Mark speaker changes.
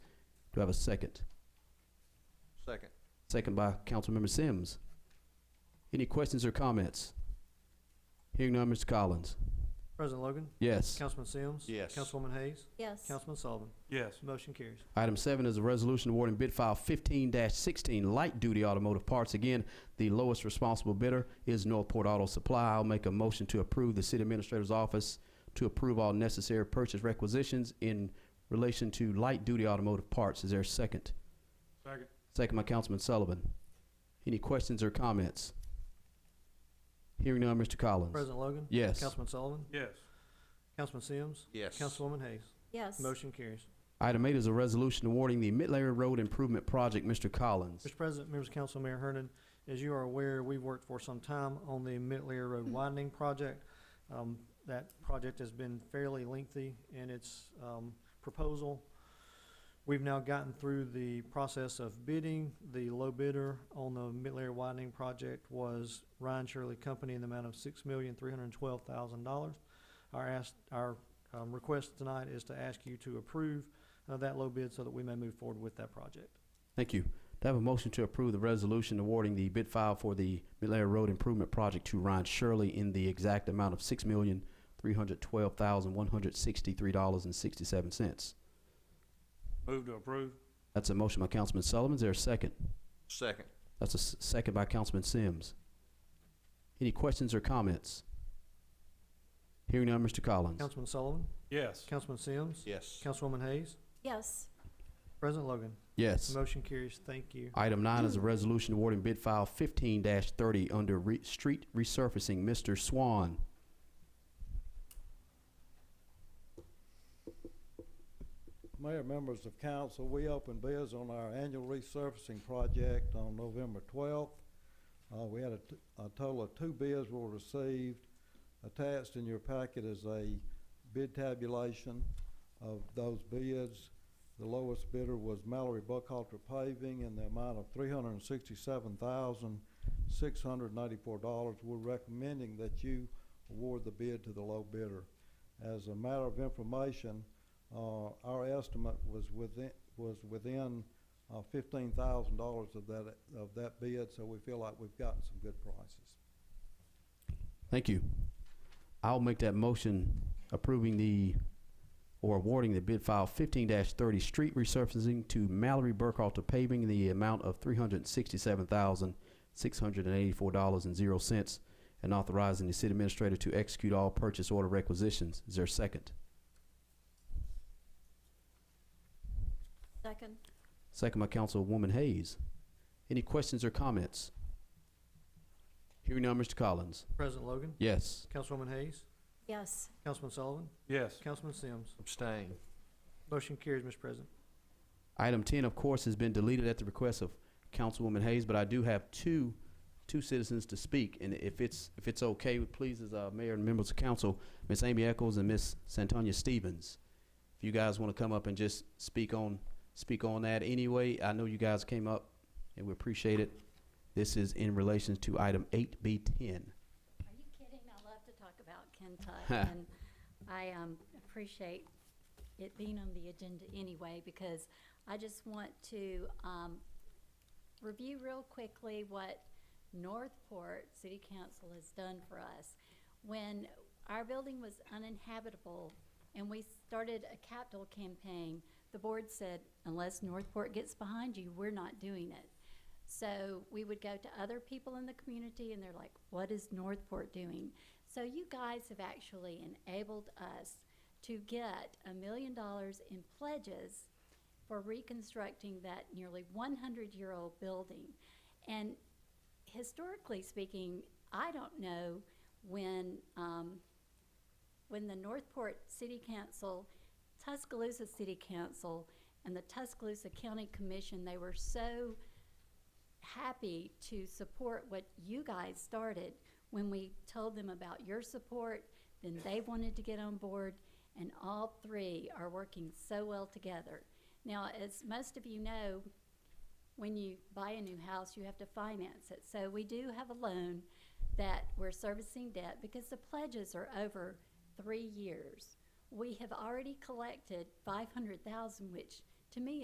Speaker 1: Do I have a second?
Speaker 2: Second.
Speaker 1: Second by Councilmember Sims. Any questions or comments? Hearing none, Mr. Collins.
Speaker 3: President Logan,
Speaker 1: Yes.
Speaker 3: Councilman Sims.
Speaker 2: Yes.
Speaker 3: Councilwoman Hayes,
Speaker 4: Yes.
Speaker 3: Councilman Sullivan.
Speaker 5: Yes.
Speaker 3: Motion carries.
Speaker 1: Item seven is a resolution awarding bid file fifteen sixteen light duty automotive parts. Again, the lowest responsible bidder is Northport Auto Supply. I'll make a motion to approve the city administrator's office to approve all necessary purchase requisitions in relation to light duty automotive parts. Is there a second?
Speaker 5: Second.
Speaker 1: Second by Councilman Sullivan. Any questions or comments? Hearing none, Mr. Collins.
Speaker 3: President Logan.
Speaker 1: Yes.
Speaker 3: Councilman Sullivan,
Speaker 5: Yes.
Speaker 3: Councilman Sims.
Speaker 2: Yes.
Speaker 3: Councilwoman Hayes.
Speaker 4: Yes.
Speaker 3: Motion carries.
Speaker 1: Item eight is a resolution awarding the Mid-Layer Road Improvement Project. Mr. Collins.
Speaker 3: Mr. President, members of council, Mayor Hernan, as you are aware, we've worked for some time on the Mittler Road widening project. Um, that project has been fairly lengthy in its, um, proposal. We've now gotten through the process of bidding. The low bidder on the Mittler widening project was Ryan Shirley Company in the amount of six million, three hundred and twelve thousand dollars. Our ask, our, um, request tonight is to ask you to approve, uh, that low bid so that we may move forward with that project.
Speaker 1: Thank you. Do I have a motion to approve the resolution awarding the bid file for the Millaire Road Improvement Project to Ryan Shirley in the exact amount of six million, three hundred twelve thousand, one hundred sixty-three dollars and sixty-seven cents?
Speaker 5: Move to approve.
Speaker 1: That's a motion by Councilman Sullivan. Is there a second?
Speaker 2: Second.
Speaker 1: That's a s- second by Councilman Sims. Any questions or comments? Hearing none, Mr. Collins.
Speaker 3: Councilman Sullivan,
Speaker 5: Yes.
Speaker 3: Councilman Sims,
Speaker 2: Yes.
Speaker 3: Councilwoman Hayes,
Speaker 4: Yes.
Speaker 3: President Logan.
Speaker 1: Yes.
Speaker 3: Motion carries. Thank you.
Speaker 1: Item nine is a resolution awarding bid file fifteen thirty under re- street resurfacing. Mr. Swan.
Speaker 6: Mayor, members of council, we opened bids on our annual resurfacing project on November twelfth. Uh, we had a, t- a total of two bids were received. Attached in your packet is a bid tabulation of those bids. The lowest bidder was Mallory Buckhalter Paving in the amount of three hundred and sixty-seven thousand, six hundred and ninety-four dollars. We're recommending that you award the bid to the low bidder. As a matter of information, uh, our estimate was within, was within, uh, fifteen thousand dollars of that, of that bid, so we feel like we've gotten some good prices.
Speaker 1: Thank you. I'll make that motion approving the, or awarding the bid file fifteen thirty, street resurfacing to Mallory Burkhalter paving in the amount of three hundred and sixty-seven thousand, six hundred and eighty-four dollars and zero cents, and authorizing the city administrator to execute all purchase order requisitions. Is there a second?
Speaker 4: Second.
Speaker 1: Second by Councilwoman Hayes. Any questions or comments? Hearing now, Mr. Collins.
Speaker 3: President Logan,
Speaker 1: Yes.
Speaker 3: Councilwoman Hayes,
Speaker 4: Yes.
Speaker 3: Councilman Sullivan,
Speaker 5: Yes.
Speaker 3: Councilman Sims.
Speaker 2: Abstain.
Speaker 3: Motion carries, Mr. President.
Speaker 1: Item ten, of course, has been deleted at the request of Councilwoman Hayes, but I do have two, two citizens to speak, and if it's, if it's okay, please, as, uh, mayor and members of council, Miss Amy Echols and Miss Santonia Stevens. If you guys wanna come up and just speak on, speak on that anyway, I know you guys came up, and we appreciate it. This is in relation to item eight B ten.
Speaker 7: Are you kidding? I love to talk about Kentucky, and I um, appreciate it being on the agenda anyway, because I just want to um, review real quickly what Northport City Council has done for us. When our building was uninhabitable and we started a capital campaign, the board said, unless Northport gets behind you, we're not doing it. So we would go to other people in the community and they're like, what is Northport doing? So you guys have actually enabled us to get a million dollars in pledges for reconstructing that nearly 100 year old building. And historically speaking, I don't know when, um, when the Northport City Council, Tuscaloosa City Council, and the Tuscaloosa County Commission, they were so happy to support what you guys started when we told them about your support, then they wanted to get on board, and all three are working so well together. Now, as most of you know, when you buy a new house, you have to finance it. So we do have a loan that we're servicing debt because the pledges are over three years. We have already collected five hundred thousand, which to me